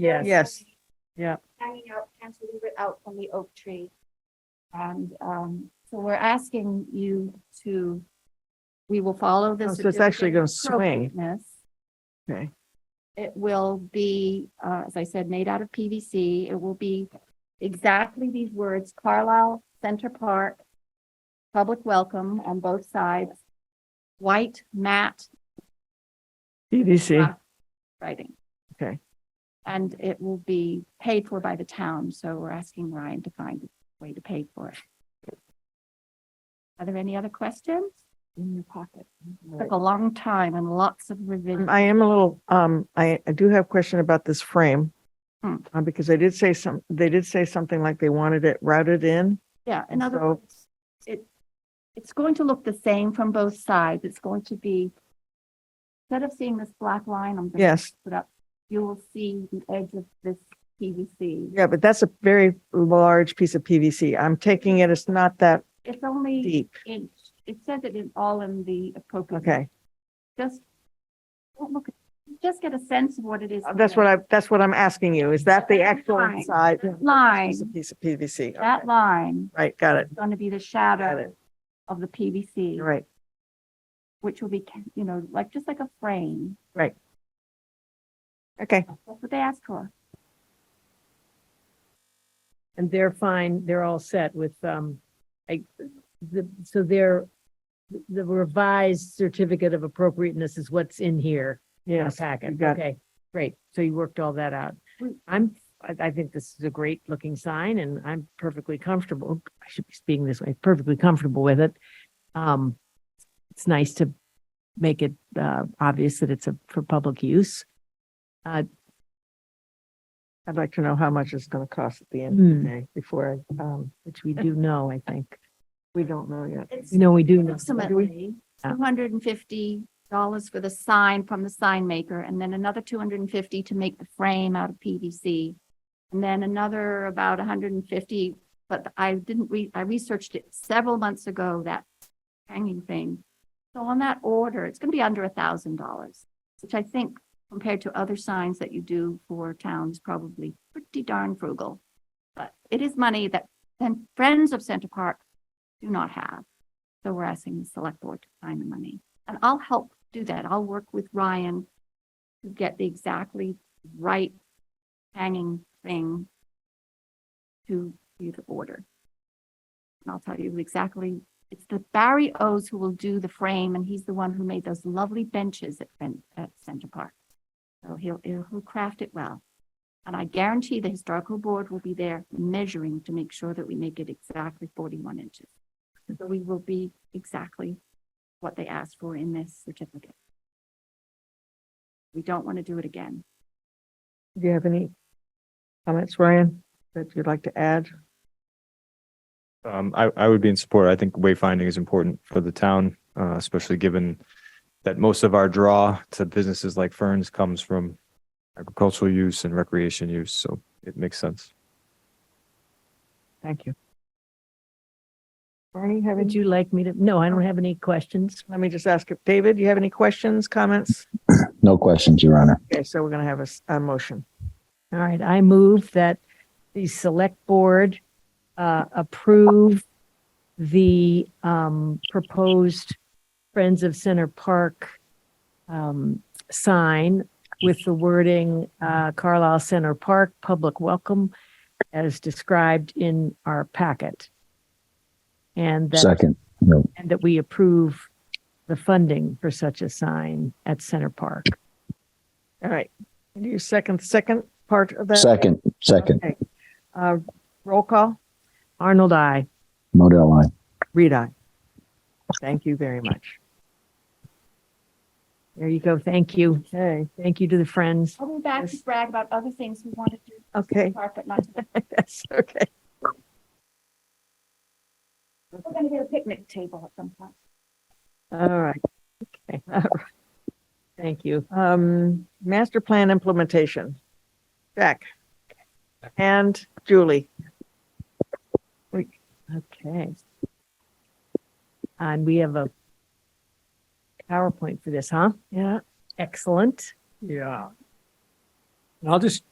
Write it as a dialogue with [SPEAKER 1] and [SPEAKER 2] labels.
[SPEAKER 1] Yes.
[SPEAKER 2] Yes.
[SPEAKER 3] hanging out, cantilever out from the oak tree. And um, so we're asking you to, we will follow
[SPEAKER 2] Oh,
[SPEAKER 3] this.
[SPEAKER 2] so it's actually gonna
[SPEAKER 3] certificate of appropriateness.
[SPEAKER 2] Okay.
[SPEAKER 3] It will be, uh, as I said, made out of PVC. It will be exactly these words, Carlisle Center Park, public welcome on both sides, white mat
[SPEAKER 2] PVC.
[SPEAKER 3] Ah. writing.
[SPEAKER 2] Okay.
[SPEAKER 3] And it will be paid for by the town, so we're asking Ryan to find a way to pay for it. Are there any other questions? In your pocket. Took a long time and lots of revision.
[SPEAKER 2] Um, Mm, I am a little, um, I, I do have a question about this frame.
[SPEAKER 3] Hmm.
[SPEAKER 2] Uh, because they did say some, they did say something like they wanted it routed in.
[SPEAKER 3] Yeah, in
[SPEAKER 2] And
[SPEAKER 3] other
[SPEAKER 2] so-
[SPEAKER 3] words, it, it's going to look the same from both sides. It's going to be, instead of seeing this black line, I'm going to
[SPEAKER 2] Yes.
[SPEAKER 3] put up, you will see the edge of this PVC.
[SPEAKER 2] Yeah, but that's a very large piece of PVC. I'm taking it, it's not that
[SPEAKER 3] It's only
[SPEAKER 2] deep.
[SPEAKER 3] inch. It says it in all in the appropriate.
[SPEAKER 2] Okay.
[SPEAKER 3] just, don't look, at- just get a sense of what it is.
[SPEAKER 2] Uh, That's what I, that's what I'm asking you. Is that the actual
[SPEAKER 3] Fine.
[SPEAKER 2] inside?
[SPEAKER 3] That Line,
[SPEAKER 2] It's a piece of PVC.
[SPEAKER 3] that
[SPEAKER 2] Okay.
[SPEAKER 3] line
[SPEAKER 2] Right, got it.
[SPEAKER 3] is going to be the
[SPEAKER 2] Got
[SPEAKER 3] shadow
[SPEAKER 2] it.
[SPEAKER 3] of the PVC,
[SPEAKER 2] You're right.
[SPEAKER 3] which will be, ca- you know, like, just like a frame.
[SPEAKER 2] Okay.
[SPEAKER 3] That's what they asked for.
[SPEAKER 1] And they're fine, they're all set with, um, I, the, so their, the revised certificate of appropriateness is what's in here. in our
[SPEAKER 2] Yes. you
[SPEAKER 1] Packet,
[SPEAKER 2] got Hmm. it.
[SPEAKER 1] okay, great. So you worked all that out.
[SPEAKER 3] Mm.
[SPEAKER 1] I'm, I, I think this is a great looking sign and I'm perfectly comfortable, I should be speaking this way, perfectly comfortable with it. Um, it's nice to make it, uh, obvious that it's a, for public use.
[SPEAKER 2] I'd like to know how much it's going to cost at the end of
[SPEAKER 1] Hmm.
[SPEAKER 2] the day before, I, um,
[SPEAKER 1] which we do know, I think.
[SPEAKER 2] we don't know yet.
[SPEAKER 3] It's
[SPEAKER 1] You know, we do know.
[SPEAKER 3] approximately
[SPEAKER 1] Yeah.
[SPEAKER 3] two hundred and fifty dollars for the sign from the sign maker, and then another two hundred and fifty to make the frame out of PVC. And then another about hundred and fifty, but I didn't re, I researched it several months ago, that hanging thing. So on that order, it's gonna be under a thousand dollars, which I think compared to other signs that you do for towns, probably pretty darn frugal. But it is money that then friends of Center Park do not have. So we're asking the select board to find the money. And I'll help do that. I'll work with Ryan to get the exactly right hanging thing to you to order. And I'll tell you exactly, it's the Barry O's who will do the frame and he's the one who made those lovely benches at, Fen- at Center Park. So he'll, he'll he'll craft it well. And I guarantee the historical board will be there measuring to make sure that we make it exactly 41 inches. So we will be exactly what they asked for in this certificate. We don't want to do it again.
[SPEAKER 2] Do you have any comments, Ryan, that you'd like to add?
[SPEAKER 4] Um, I, I would be in support. I think wayfinding is important for the town, uh, especially given that most of our draw to businesses like Ferns comes from agricultural use and recreation use, so it makes sense.
[SPEAKER 2] Thank you. Barney, have
[SPEAKER 1] Would
[SPEAKER 2] you,
[SPEAKER 1] you like me to, no, I don't have any questions.
[SPEAKER 2] let me just ask, if David, you have any questions, comments?
[SPEAKER 5] No questions, Your Honor.
[SPEAKER 2] Okay, so we're going to have a s- a, motion.
[SPEAKER 1] All right, I move that the select board uh, approve the um, proposed Friends of Center Park um, sign with the wording uh, Carlisle Center Park Public Welcome as described in our packet. And that,
[SPEAKER 5] Second,
[SPEAKER 1] and that we approve the funding for such a sign at Center Park.
[SPEAKER 2] All right. Do you second, second part of that?
[SPEAKER 5] second, second,
[SPEAKER 2] Okay. Uh, roll call?
[SPEAKER 1] Arnold, I.
[SPEAKER 5] Modell line.
[SPEAKER 2] Read I. Thank you very much.
[SPEAKER 1] There you go. Thank you.
[SPEAKER 2] Okay,
[SPEAKER 1] Thank you to the friends.
[SPEAKER 3] I'll be back to
[SPEAKER 2] Yes.
[SPEAKER 3] brag about other things we want to do
[SPEAKER 2] okay,
[SPEAKER 3] park, but not,
[SPEAKER 2] yes, okay.
[SPEAKER 3] we're going to get a picnic table at some point.
[SPEAKER 2] All right.
[SPEAKER 1] Okay. All right. Thank you.
[SPEAKER 2] Um, master plan implementation. Jack. And Julie.
[SPEAKER 1] Okay. And we have a PowerPoint for this, huh?
[SPEAKER 2] Yeah.
[SPEAKER 1] Excellent.
[SPEAKER 6] Yeah. And I'll just